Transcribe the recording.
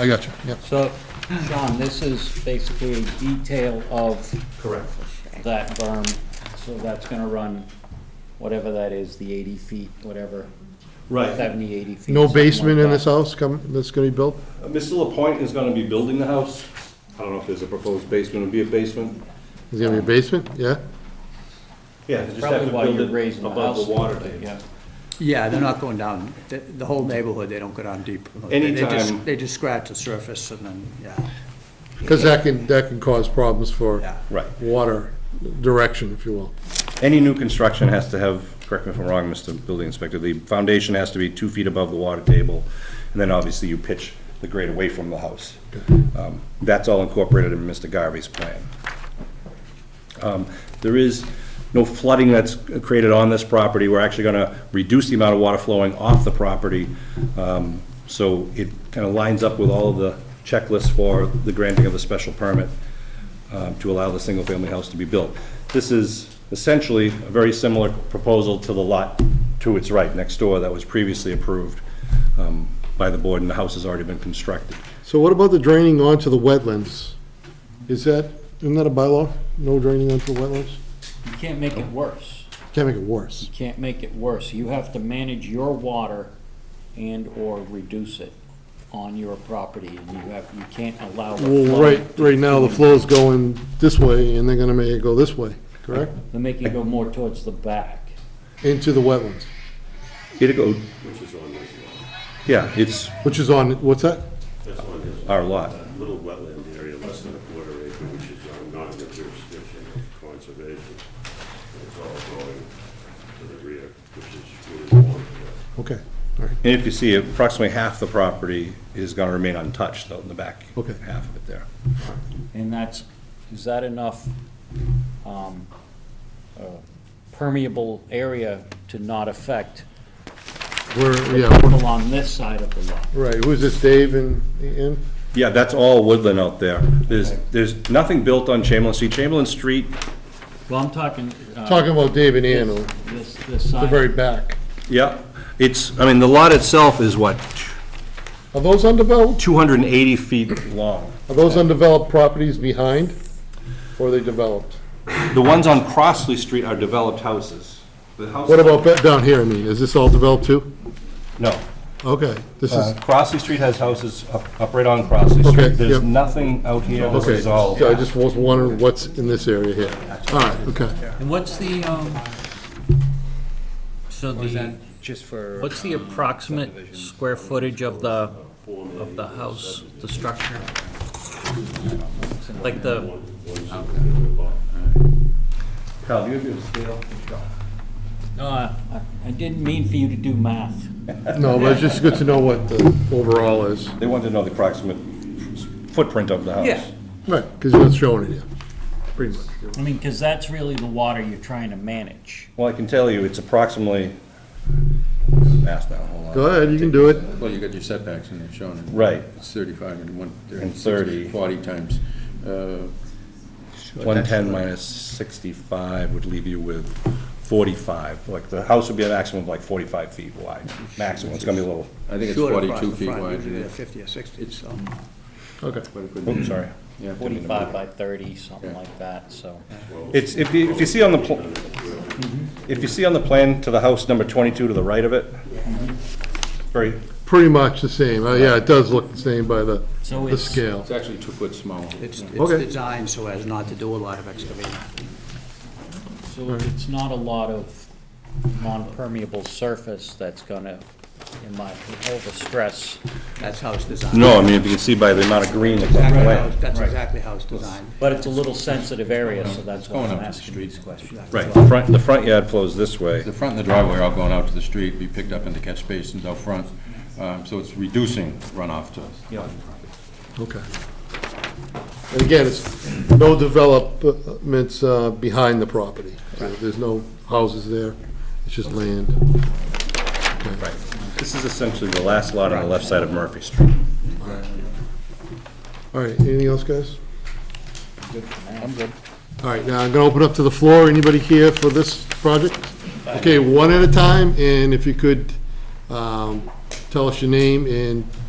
I got you, yep. So, Sean, this is basically a detail of Correct. that berm, so that's gonna run, whatever that is, the eighty feet, whatever, Right. seventy, eighty feet. No something like basement in that. this house come, that's gonna be built? Uh, Mr. Lapointe is gonna be building the house. I don't know if there's a proposed basement, it'll be a basement. Is there gonna be a basement, yeah? Yeah, they just have Probably to while build you're it raising the above house. the water a little bit, table. Yeah, Yeah, they're not going down, the, the whole neighborhood, they don't go down deep. They- they just- Anytime- They just scratch the surface and then, yeah, Because that can, that can cause problems for yeah. Right. water direction, if you will. Any new construction has to have, correct me if I'm wrong, Mr. Building Inspector, the foundation has to be two feet above the water table, and then obviously you pitch the grade away from the house. Um, That's all incorporated in Mr. Garvey's plan. Um, There is no flooding that's created on this property. We're actually going to reduce the amount of water flowing off the property. Um, So it kind of lines up with all of the checklists for the granting of the special permit um, to allow the single-family house to be built. This is essentially a very similar proposal to the lot to its right next door that was previously approved um, by the board, and the house has already been constructed. So what about the draining onto the wetlands? Is that, isn't that a bylaw? No draining onto the wetlands? you can't make it worse, Can't make it worse. you can't make it worse, you have to manage your water and/or reduce it on your property, and you have, you can't allow the Well, flow. right, right now, the to- flow's going this way, and they're gonna make it go this way, correct? They're making it go more towards the back. Into the wetlands, Here to go. Yeah, it's which is on, what's that? That's on his our lot. little wetland area, less than a quarter acre, which is um, not in the jurisdiction of conservation. It's all going to the rear, which is really one. Okay, all right. And if you see, approximately half the property is going to remain untouched, though, in the back Okay. half of it there. And that's, is that enough um, uh, permeable area to not affect We're, yeah, people we're- on this side of the lot? right, who's this, Dave and, and? Yeah, that's all woodland out there. There's, there's nothing built on Chamberlain Street. Chamberlain Street, Well, I'm talking. uh, Talking about Dave and Ann, This, the this- this side. very back. yeah, it's, I mean, the lot itself is what, Are those undeveloped? 280 feet long. Are those undeveloped properties behind, or are they developed? The ones on Crossley Street are developed houses. The house- What about Uh. that down here, I mean, is this all developed too? No. Okay, this Uh, is, Crossley Street has houses up, up right on Crossley Okay, Street. There's yep. nothing out here. This okay, is all. so I just was wondering what's in this area here. All right, okay. And what's the, um, so the, Just for. what's the approximate square footage of the, of the house, the structure? Like the, Cal, do you have your scale? No, Uh, I I- I didn't mean for you to do math. No, but it's just good to know what the overall is. They want to know the approximate footprint of the house. Yeah. Right, because you're not showing it here, pretty much. I mean, because that's really the water you're trying to manage. Well, I can tell you, it's approximately, math now, hold on. Go ahead, you can do it. Well, you got your setbacks in there shown. and Right. It's 35 and 1, And 30. 40 times. uh, 110 minus 65 would leave you with 45. Like, the house would be a maximum of like 45 feet wide, maximum. It's going to be a little, I think it's Short across 42 the feet front, wide. usually yeah. they're Fifty or sixty, It's- so. Okay. But it could be- oops, sorry. yeah, it could be number- Forty-five by thirty, something like that, so. It's, if you, if you see on the, pl- if you see on the plan to the house number 22 to the right of it, very, Pretty much the same, Uh, yeah, it does look the same by the, So the it's- scale. It's actually two foot smaller. It's, it's Okay. designed so as not to do a lot of excavating. So it's not a lot of non-permeable surface that's gonna, in my, overstress. That's how it's designed. no, I mean, if you can see by the amount of green that's on the Exactly how- plan. That's exactly how it's designed. But it's a little sensitive area, so that's why Going I'm up to the asking street. these questions. Right, the front, the front yard flows this way. The front and the driveway are all going out to the street, be picked up in the catch basins out front. um, So it's reducing runoff to Okay. And again, it's no developments uh, behind the property. So There's no houses there, it's just land. Right. This is essentially the last lot on the left side of Murphy Street. All right, anything else, guys? I'm good. All right, now I'm going to open up to the floor. Anybody here for this project? Okay, one at a time, and if you could um, tell us your name and